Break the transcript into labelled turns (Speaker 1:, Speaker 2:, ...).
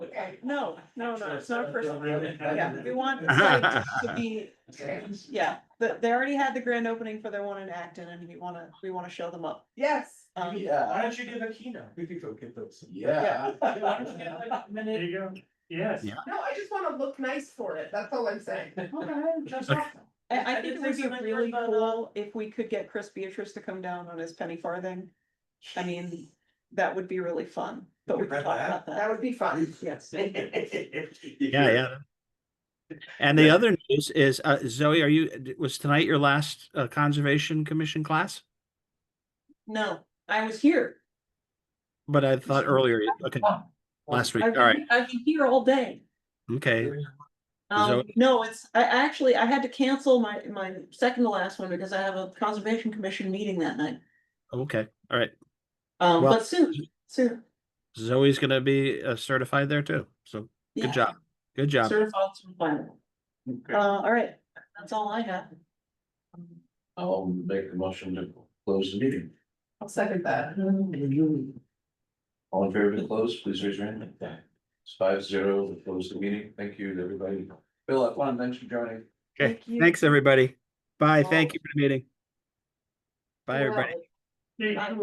Speaker 1: okay, no, no, no, it's not a personal. Yeah, we
Speaker 2: Yeah.
Speaker 1: want the site to be, yeah, but they already had the grand opening for their one in Acton and we wanna, we wanna show them up.
Speaker 3: Yes.
Speaker 1: Um,
Speaker 2: uh, Why
Speaker 3: Yeah.
Speaker 2: don't you give a keynote? We could go get those.
Speaker 3: Yeah.
Speaker 2: Why don't you give like a
Speaker 4: There
Speaker 2: minute?
Speaker 4: you go. Yes.
Speaker 5: Yeah.
Speaker 3: No, I just wanna look nice for it, that's all I'm saying.
Speaker 2: Okay.
Speaker 1: I, I
Speaker 2: I did
Speaker 1: think it would
Speaker 2: see
Speaker 1: be
Speaker 2: something
Speaker 1: really
Speaker 2: about, uh,
Speaker 1: cool if we could get Chris Beatrice to come down on his penny farthing. I mean, that would be really fun, but we
Speaker 2: could
Speaker 1: can
Speaker 2: wrap
Speaker 1: talk
Speaker 2: that.
Speaker 1: about
Speaker 3: That
Speaker 1: that.
Speaker 3: would be fun.
Speaker 1: Yes.
Speaker 5: Yeah, yeah. And the other news is, uh, Zoe, are you, d- was tonight your last, uh, Conservation Commission class?
Speaker 1: No, I was here.
Speaker 5: But I thought earlier, okay, last week, all right,
Speaker 1: I've been here all day.
Speaker 5: okay,
Speaker 1: Um,
Speaker 5: Zoe?
Speaker 1: no, it's, I actually, I had to cancel my, my second to last one because I have a conservation commission meeting that night.
Speaker 5: okay, all right.
Speaker 1: Um,
Speaker 5: Well-
Speaker 1: but soon, soon.
Speaker 5: Zoe's gonna be uh, certified there too, so
Speaker 1: yeah.
Speaker 5: good job, good job.
Speaker 1: Certified certifiable. Uh, all right, that's all I have.
Speaker 6: I'll make the motion to close the meeting.
Speaker 3: I'll second that.
Speaker 6: All in favor to close, please raise your hand. It's five zero to close the meeting. Thank you to everybody. Bill, have fun. Thanks for joining.
Speaker 5: Okay,
Speaker 1: Thank you.
Speaker 5: thanks, everybody. Bye,
Speaker 1: Bye.
Speaker 5: thank you for the meeting. Bye,
Speaker 3: You're
Speaker 5: everybody.
Speaker 3: welcome.
Speaker 4: Thank you.
Speaker 1: Bye.